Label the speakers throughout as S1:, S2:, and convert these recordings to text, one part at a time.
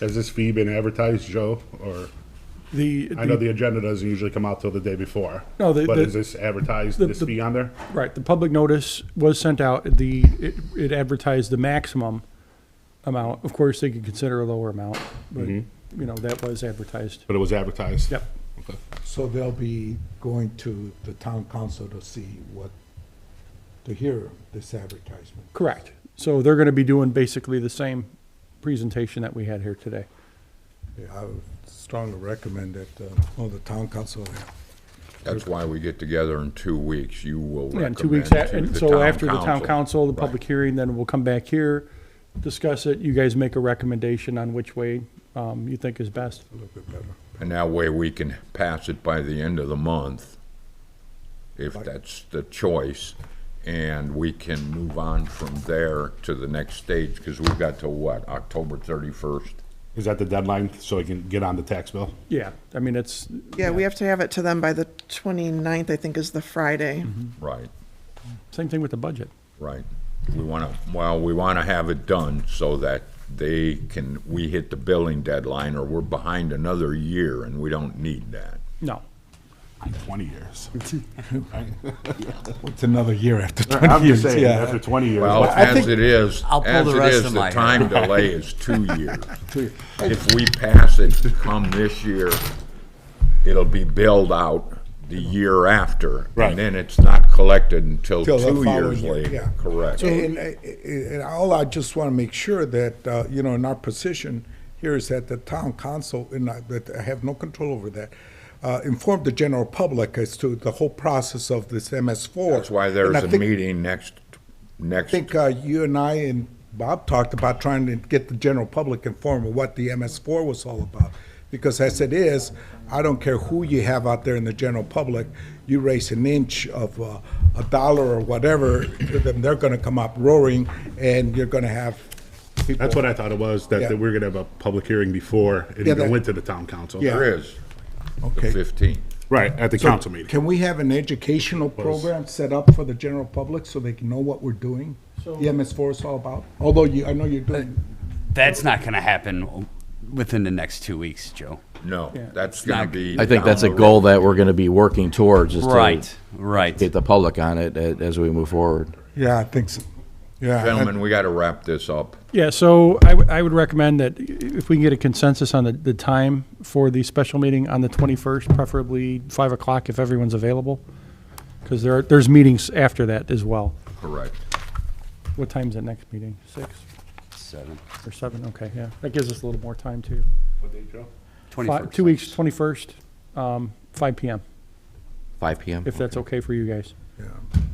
S1: Has this fee been advertised, Joe, or,
S2: The,
S1: I know
S2: the,
S1: the agenda doesn't usually come out till the day before.
S2: No, the-
S1: But
S2: the-
S1: is this advertised,
S2: the-
S1: this
S2: the-
S1: fee on there?
S2: right, the public notice was sent out, the, it- it advertised the maximum amount. Of course, they could consider a lower amount, but, you
S1: Mm-hmm.
S2: know, that was advertised.
S1: But it was advertised?
S2: Yep.
S1: Okay.
S3: So they'll be going to the town council to see what, to hear this advertisement.
S2: Correct. So they're going to be doing basically the same presentation that we had here today.
S3: Yeah, I would strongly recommend that, uh, well, the town council,
S4: That's why we get together in two weeks. You will
S2: Yeah, in
S4: recommend
S2: two weeks, a-
S4: to
S2: and
S4: the
S2: so after the
S4: town
S2: town council, the
S4: Right.
S2: public hearing, then we'll come back here, discuss it, you guys make a recommendation on which way um, you think is best.
S3: a little bit better.
S4: And that way we can pass it by the end of the month, if that's the choice. And we can move on from there to the next stage, because we've got to what, October thirty-first?
S1: Is that the deadline, so I can get on the tax bill?
S2: Yeah, I mean, it's,
S5: Yeah, we have to have it to them by the 29th, I think is the Friday.
S4: Right,
S2: same thing with the budget.
S4: right. We want to, well, we want to have it done so that they can, we hit the billing deadline, or we're behind another year, and we don't need that.
S2: No,
S1: Twenty years.
S3: It's another year after
S1: I'm
S3: twenty
S1: just
S3: years,
S1: saying, after
S3: yeah.
S1: twenty years.
S4: Well,
S1: what-
S4: as it is,
S6: I'll pull
S4: as
S6: the
S4: it
S6: rest
S4: is,
S6: of
S4: the
S6: my hair.
S4: time delay is two years. If we pass it come this year, it'll be billed out the year after.
S1: Right.
S4: And then it's not collected until
S3: Till the
S4: two
S3: following
S4: years
S3: year, yeah.
S4: later. Correct.
S3: And, and- and all I just want to make sure that, uh, you know, in our position here is that the town council, and I, that I have no control over that, uh, inform the general public as to the whole process of this MS four.
S4: That's why there's
S3: And I
S4: a
S3: think-
S4: meeting next, next,
S3: I think uh, you and I and Bob talked about trying to get the general public informed of what the MS4 was all about. Because as it is, I don't care who you have out there in the general public, you raise an inch of uh, a dollar or whatever to them, they're going to come up roaring, and you're going to have people.
S1: That's what I thought it was, that that we are gonna have a public hearing before it
S3: Yeah,
S1: even
S3: that-
S1: went to the town council.
S3: Yeah.
S4: there is, the
S3: Okay.
S4: fifteenth.
S1: Right, at the council meeting.
S3: Can we have an educational program set up for the general public so they can know what we're doing? The MS4 is all about, although you, I know you're doing.
S6: That's not going to happen within the next two weeks, Joe.
S4: No,
S2: Yeah.
S4: that's gonna
S6: not-
S4: be.
S7: I think
S4: down
S7: that's a
S4: the
S7: goal
S4: road.
S7: that we're going to be working towards is
S6: Right,
S7: to
S6: right.
S7: get the public on it a- as we move forward.
S3: Yeah, I think so. Yeah.
S4: Gentlemen, we gotta wrap this up.
S2: yeah, so I, w- I would recommend that i- if we can get a consensus on the, the time for the special meeting on the 21st, preferably 5 o'clock if everyone's available, because there are, there's meetings after that as well.
S4: Correct.
S2: What time's that next meeting? 6
S6: Seven.
S2: or 7? Okay, yeah, that gives us a little more time too. Fi-
S6: 21st.
S2: Two weeks, 21st, um, 5 PM,
S7: 5 PM?
S2: if that's okay for you guys.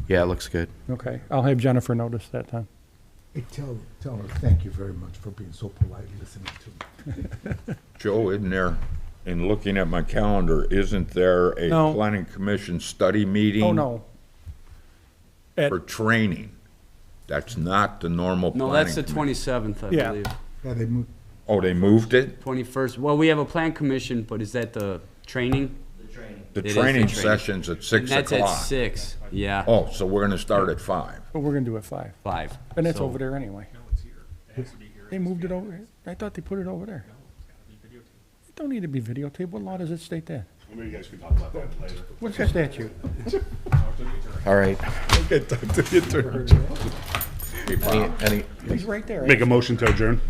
S7: Yeah, it looks good.
S2: Okay, I'll have Jennifer notice that time.
S3: Hey, tell, tell her, thank you very much for being so polite and listening to me.
S4: Joe, isn't there, in looking at my calendar, isn't there a
S2: No.
S4: planning commission study meeting?
S2: Oh, no,
S4: For training. That's not the normal planning.
S6: No, that's the
S4: commi-
S6: 27th, I
S2: Yeah.
S6: believe.
S3: Yeah, they moved.
S4: Oh, they moved it?
S6: 21st. Well, we have a plan commission, but is that the training?
S4: The
S6: It is the
S4: training
S6: training.
S4: session's at
S6: And
S4: six
S6: that's at
S4: o'clock.
S6: six. Yeah,
S4: Oh, so we're gonna start at five.
S2: but we're gonna do it 5.
S6: five.
S2: And it's
S6: So-
S2: over there anyway. They moved it over, here? I thought they put it over there. It don't need to be videotaped, what law does it state that?
S1: Maybe you guys can talk about that later.
S2: What's the statute?
S7: All right.
S3: Okay, talk to the attorney.
S7: Any, any,
S2: He's right there.
S1: Make a motion to adjourn.